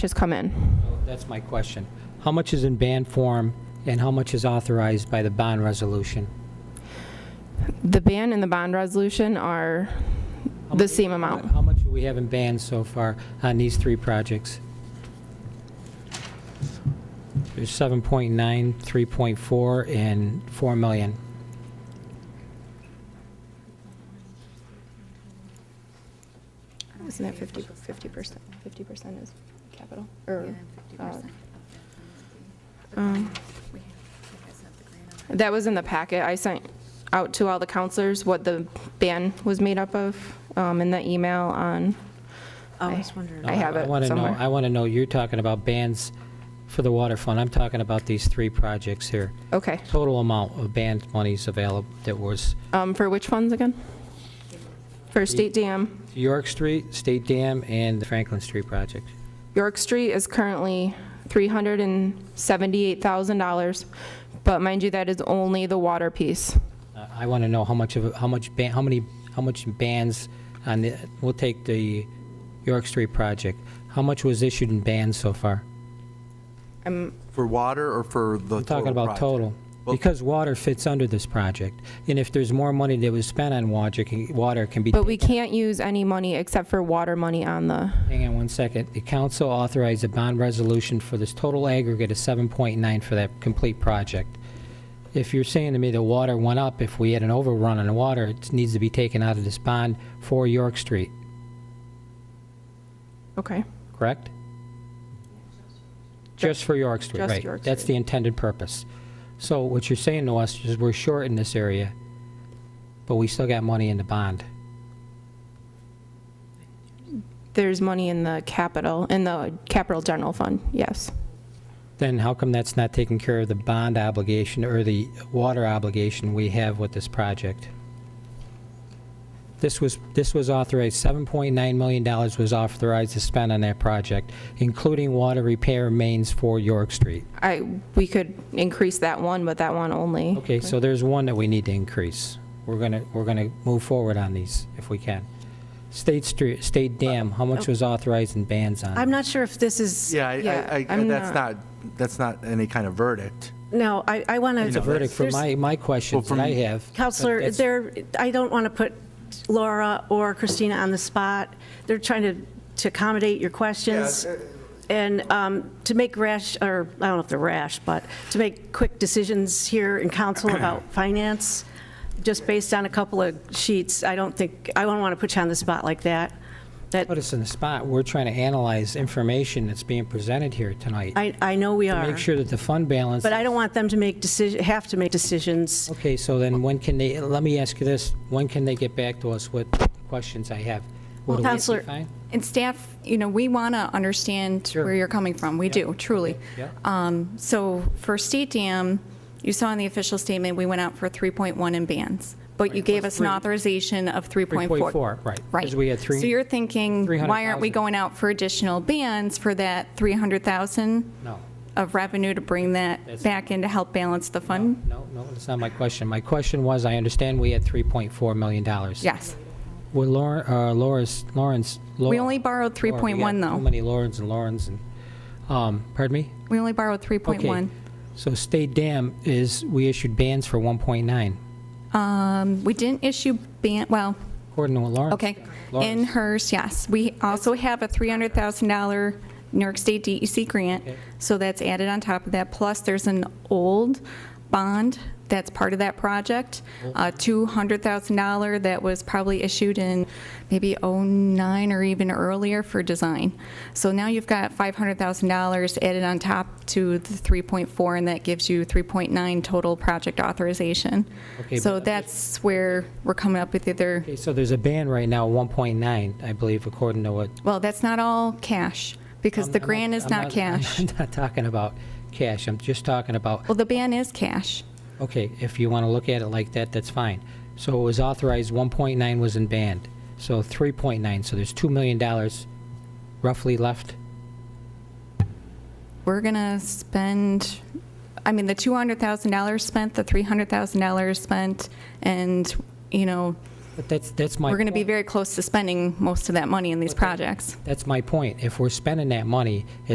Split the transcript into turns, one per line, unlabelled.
just come in.
That's my question. How much is in band form and how much is authorized by the bond resolution?
The ban and the bond resolution are the same amount.
How much do we have in bands so far on these three projects? There's 7.9, 3.4, and 4 million.
Isn't it 50, 50%, 50% is capital, or? uh, um, That was in the packet I sent out to all the counselors, what the ban was made up of, um, in the email on,
I was wondering.
I have it
wanna know-
somewhere.
I want to know, you're talking about bands for the water fund. I'm talking about these three projects here.
okay.
Total amount of band monies available that was
Um, for which funds again? For State Dam,
York Street, State Dam, and the Franklin Street project.
York Street is currently $378,000, but mind you, that is only the water piece.
Uh, I want to know how much of, how much, ban- how many, how much bans on the, we'll take the York Street project. How much was issued in bans so far?
For water or for the
I'm talking about
project?
total.
Well-
Because water fits under this project. And if there's more money that was spent on water, it can- water can be
But we can't use any money except for water money on the,
Hang on one second. The council authorized a bond resolution for this total aggregate of 7.9 for that complete project. If you're saying to me the water went up, if we had an overrun on the water, it needs to be taken out of this bond for York Street,
okay.
correct? Just for York Street,
Just
right.
York
That's
Street.
the intended purpose. So what you're saying to us is we're short in this area, but we still got money in the bond.
There's money in the capital, in the capital general fund, yes.
Then how come that's not taking care of the bond obligation or the water obligation we have with this project? This was, this was authorized, $7.9 million was authorized to spend on that project, including water repair mains for York Street.
I, we could increase that one, but that one only.
Okay, so there's one that we need to increase. We're gonna, we're gonna move forward on these if we can. State Street, State Dam, how much was authorized in bans on?
oh. I'm not sure if this is,
Yeah, I-
Yeah,
I, I,
I'm
that's
not-
not, that's not any kind of verdict.
no, I, I want to.
It's a verdict for my, my questions that I have. but
Counselor,
that's-
there, I don't want to put Laura or Christina on the spot. They're trying to, to accommodate your questions
Yeah, uh,
and um, to make rash, or I don't know if they're rash, but to make quick decisions here in council about finance, just based on a couple of sheets. I don't think, I don't want to put you on the spot like that. That,
Put us in the spot. We're trying to analyze information that's being presented here tonight.
I, I know we are.
Make sure that the fund balance.
But I don't want them to make decision, have to make decisions.
Okay, so then when can they, let me ask you this, when can they get back to us with questions I have? Will the week be
Counselor-
fine?
And staff, you know, we want to understand where you're coming from. We do, truly.
Yeah.
Um, So for State Dam, you saw in the official statement, we went out for 3.1 in bans, but you gave us an authorization of 3.4.
3.4, right, 'cause
Right.
we had three-
So you're thinking, why aren't
300,000.
we going out for additional bans for that 300,000?
No.
Of revenue to bring that
That's-
back in to help balance the fund?
No, no, that's not my question. My question was, I understand we had $3.4 million.
Yes.
Well, Lauren, uh, Laura's, Lawrence.
We only borrowed 3.1 though.
Too many Laurens and Laurens and, um, pardon me?
We only borrowed 3.1.
Okay. So State Dam is, we issued bans for 1.9,
Um, We didn't issue ban, well,
according to what Lawrence.
Okay.
Lawrence.
In hers, yes. We also have a $300,000 New York State DEC grant,
Okay.
so that's added on top of that. Plus, there's an old bond that's part of that project,
Oh.
uh, $200,000 that was probably issued in maybe '09 or even earlier for design. So now you've got $500,000 added on top to the 3.4, and that gives you 3.9 total project authorization.
Okay, but
So
I'm just-
that's where we're coming up with either
Okay, so there's a ban right now, 1.9, I believe, according to what.
Well, that's not all cash, because the
I'm
grant is
I'm
not cash.
I'm not talking about cash, I'm just talking about,
Well, the ban is cash.
okay, if you want to look at it like that, that's fine. So it was authorized, 1.9 was in band, so 3.9, so there's $2 million roughly left.
We're gonna spend, I mean, the two hundred thousand dollars spent, the three hundred thousand dollars spent, and, you know,
But that's, that's my.
we're gonna be
point.
very close to spending most of that money in these projects.
That's my point. If we're spending that money,